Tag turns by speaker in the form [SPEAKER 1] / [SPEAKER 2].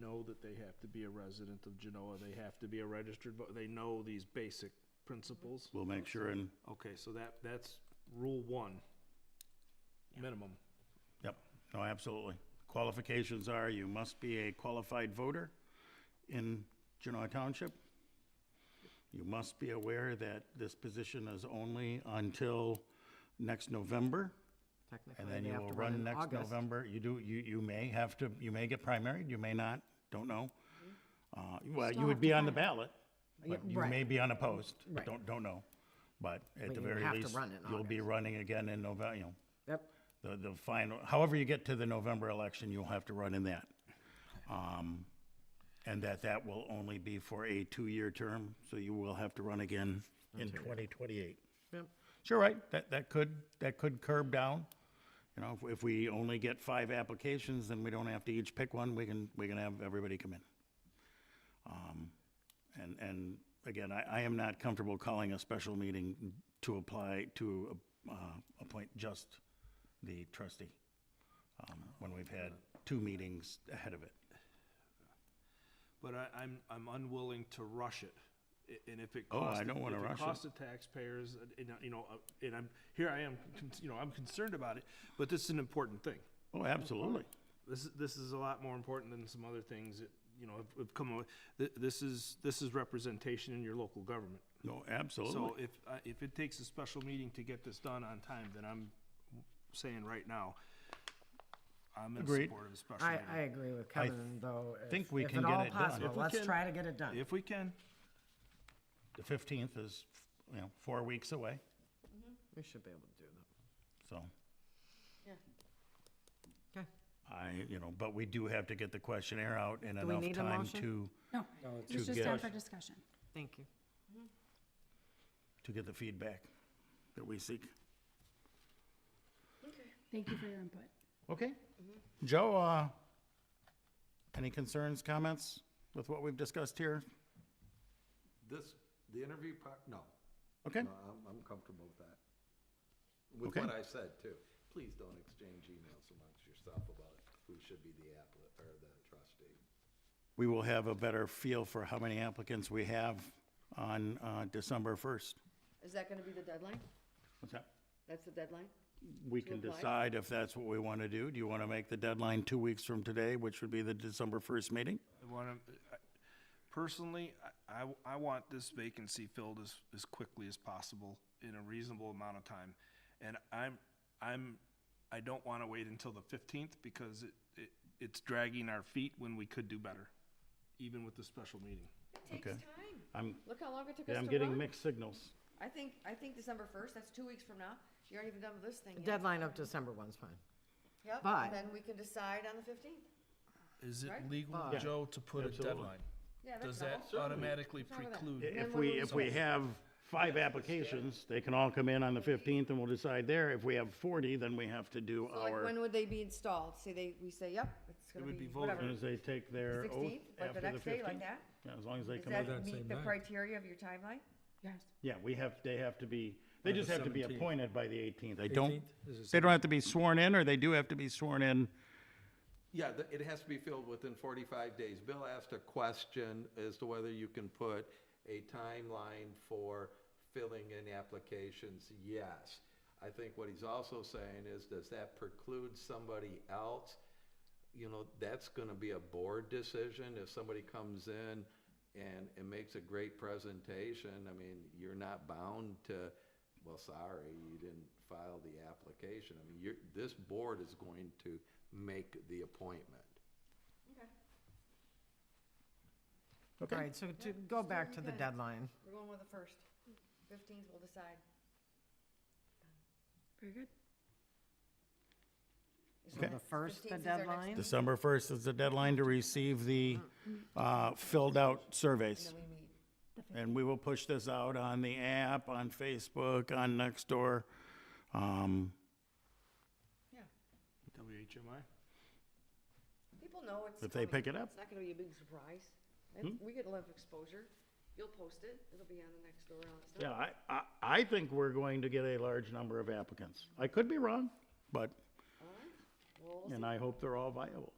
[SPEAKER 1] know that they have to be a resident of Genoa, they have to be a registered, voter. they know these basic principles.
[SPEAKER 2] We'll make sure and,
[SPEAKER 1] Okay, so that, that's rule one, minimum.
[SPEAKER 2] yep, no, absolutely. Qualifications are you must be a qualified voter in Genoa Township. You must be aware that this position is only until next November.
[SPEAKER 3] Technically,
[SPEAKER 2] And then
[SPEAKER 3] they
[SPEAKER 2] you
[SPEAKER 3] have
[SPEAKER 2] will
[SPEAKER 3] to run
[SPEAKER 2] run
[SPEAKER 3] in
[SPEAKER 2] next
[SPEAKER 3] August.
[SPEAKER 2] November. You do, you, you may have to, you may get primaried, you may not, don't know. Uh, well, you
[SPEAKER 3] Still
[SPEAKER 2] would
[SPEAKER 3] have
[SPEAKER 2] be
[SPEAKER 3] to
[SPEAKER 2] on the
[SPEAKER 3] run it.
[SPEAKER 2] ballot,
[SPEAKER 3] Yeah,
[SPEAKER 2] but you may
[SPEAKER 3] right.
[SPEAKER 2] be unopposed,
[SPEAKER 3] Right.
[SPEAKER 2] don't, don't know. But at
[SPEAKER 3] But
[SPEAKER 2] the
[SPEAKER 3] you
[SPEAKER 2] very
[SPEAKER 3] have to
[SPEAKER 2] least,
[SPEAKER 3] run in
[SPEAKER 2] you'll be
[SPEAKER 3] August.
[SPEAKER 2] running again in November, you know,
[SPEAKER 3] Yep,
[SPEAKER 2] the, the final, however you get to the November election, you'll have to run in that. Um, And that, that will only be for a two-year term, so you will have to run again in twenty twenty-eight.
[SPEAKER 3] yep.
[SPEAKER 2] Sure, right, that, that could, that could curb down. You know, if, if we only get five applications, then we don't have to each pick one, we can, we can have everybody come in. Um, And, and again, I, I am not comfortable calling a special meeting to apply, to, uh, appoint just the trustee, um, when we've had two meetings ahead of it.
[SPEAKER 1] But I, I'm, I'm unwilling to rush it. I- And if it
[SPEAKER 2] Oh,
[SPEAKER 1] costs.
[SPEAKER 2] I don't wanna
[SPEAKER 1] if
[SPEAKER 2] rush it.
[SPEAKER 1] costs the taxpayers, and, and, you know, uh, and I'm, here I am, con- you know, I'm concerned about it, but this is an important thing.
[SPEAKER 2] Oh, absolutely.
[SPEAKER 1] This, is- this is a lot more important than some other things that, you know, have- have come, o- th- this is, this is representation in your local government.
[SPEAKER 2] No, absolutely.
[SPEAKER 1] So if, I- if it takes a special meeting to get this done on time, then I'm saying right now, I'm in
[SPEAKER 2] Agreed.
[SPEAKER 1] support of a special
[SPEAKER 3] I,
[SPEAKER 1] meeting.
[SPEAKER 3] I agree with Kevin, though. if-
[SPEAKER 2] think we
[SPEAKER 3] if
[SPEAKER 2] can
[SPEAKER 3] at
[SPEAKER 2] get
[SPEAKER 3] all
[SPEAKER 2] it done.
[SPEAKER 3] possible,
[SPEAKER 1] If we
[SPEAKER 3] Let's
[SPEAKER 1] can-
[SPEAKER 3] try to get it done.
[SPEAKER 1] If we can,
[SPEAKER 2] The fifteenth is, you know, four weeks away,
[SPEAKER 3] We should be able to do that.
[SPEAKER 2] so.
[SPEAKER 3] Okay.
[SPEAKER 2] I, you know, but we do have to get the questionnaire out in
[SPEAKER 3] we
[SPEAKER 2] enough
[SPEAKER 3] need a
[SPEAKER 2] time
[SPEAKER 3] motion?
[SPEAKER 2] to,
[SPEAKER 4] No,
[SPEAKER 2] to
[SPEAKER 4] it's just
[SPEAKER 2] get-
[SPEAKER 4] time for discussion.
[SPEAKER 3] Thank you.
[SPEAKER 2] to get the feedback that we seek.
[SPEAKER 4] Thank you for your input.
[SPEAKER 2] Okay. Joe, uh, any concerns, comments with what we've discussed here?
[SPEAKER 5] This, the interview part, no.
[SPEAKER 2] Okay,
[SPEAKER 5] No, I'm, I'm comfortable with that. With
[SPEAKER 2] Okay.
[SPEAKER 5] what I said too. Please don't exchange emails amongst yourself about it. Who should be the applicant or the trustee.
[SPEAKER 2] we will have a better feel for how many applicants we have on, uh, December first.
[SPEAKER 6] Is that gonna be the deadline?
[SPEAKER 2] What's that?
[SPEAKER 6] That's the deadline?
[SPEAKER 2] We can
[SPEAKER 6] apply?
[SPEAKER 2] decide if that's what we want to do. Do you want to make the deadline two weeks from today, which would be the December first meeting?
[SPEAKER 1] I want to, personally, I, I- I want this vacancy filled as, as quickly as possible in a reasonable amount of time. And I'm, I'm, I don't want to wait until the fifteenth because it, it, it's dragging our feet when we could do better, even with the special meeting.
[SPEAKER 6] It takes time.
[SPEAKER 2] I'm-
[SPEAKER 6] Look how long it took us
[SPEAKER 2] Yeah,
[SPEAKER 6] to
[SPEAKER 2] I'm getting
[SPEAKER 6] run.
[SPEAKER 2] mixed signals.
[SPEAKER 6] I think, I think December first, that's two weeks from now. You aren't even done with this thing yet.
[SPEAKER 3] Deadline of December one's fine.
[SPEAKER 6] Yep,
[SPEAKER 3] but-
[SPEAKER 6] and then we can decide on the fifteenth.
[SPEAKER 1] Is it
[SPEAKER 6] Right.
[SPEAKER 1] legal, Joe, to put a deadline?
[SPEAKER 6] Yeah, that's
[SPEAKER 1] Does
[SPEAKER 6] all.
[SPEAKER 1] that automatically
[SPEAKER 6] wrong with that?
[SPEAKER 1] preclude?
[SPEAKER 2] If
[SPEAKER 6] Then when
[SPEAKER 2] we,
[SPEAKER 6] we
[SPEAKER 2] if we
[SPEAKER 6] decide.
[SPEAKER 2] have five applications, they can all come in on the 15th and we'll decide there. If we have 40, then we have to do
[SPEAKER 6] So like,
[SPEAKER 2] our,
[SPEAKER 6] when
[SPEAKER 2] as
[SPEAKER 6] would they be installed? Say they, we say, yep, it's gonna
[SPEAKER 1] would
[SPEAKER 6] be
[SPEAKER 1] be voted.
[SPEAKER 2] soon
[SPEAKER 6] whatever.
[SPEAKER 2] as they take their oath
[SPEAKER 6] 16th, like
[SPEAKER 2] after
[SPEAKER 6] the
[SPEAKER 2] the
[SPEAKER 6] next day, like
[SPEAKER 2] 15th.
[SPEAKER 6] that?
[SPEAKER 2] Yeah, as long as they
[SPEAKER 6] Does
[SPEAKER 2] come in.
[SPEAKER 6] that meet the criteria of your timeline?
[SPEAKER 4] Yes.
[SPEAKER 2] Yeah, we have, they have to be, they just have to be
[SPEAKER 7] 17th.
[SPEAKER 2] appointed by the 18th. They don't,
[SPEAKER 7] 18th? Is it
[SPEAKER 2] they don't have to be sworn in or they do have to be sworn in.
[SPEAKER 5] Yeah, the- it has to be filled within 45 days. Bill asked a question as to whether you can put a timeline for filling in applications. Yes. I think what he's also saying is, does that preclude somebody else? You know, that's going to be a board decision. If somebody comes in and, and makes a great presentation, I mean, you're not bound to, well, sorry, you didn't file the application. I mean, you're, this board is going to make the appointment.
[SPEAKER 6] Okay,
[SPEAKER 3] All right, so to go back to the
[SPEAKER 6] Okay.
[SPEAKER 3] deadline,
[SPEAKER 6] we're going with the first. Fifteenth, we'll decide.
[SPEAKER 4] Very good.
[SPEAKER 3] so the first, the
[SPEAKER 6] 15th is our next
[SPEAKER 3] deadline,
[SPEAKER 2] December 1st is the deadline to receive the uh, filled out surveys.
[SPEAKER 6] We meet.
[SPEAKER 2] And we will push this out on the app, on Facebook, on Nextdoor. Um,
[SPEAKER 6] Yeah.
[SPEAKER 1] WHMI?
[SPEAKER 6] People know it's.
[SPEAKER 2] If they
[SPEAKER 6] coming.
[SPEAKER 2] pick it up. Hmm?
[SPEAKER 6] It's not gonna be a big surprise. And We get a lot of exposure. You'll post it. It'll be on the next door and all that stuff.
[SPEAKER 2] Yeah, I, I, I think we're going to get a large number of applicants. I could be wrong, but,
[SPEAKER 6] All right. Well, we'll see.
[SPEAKER 2] and I hope they're all viable.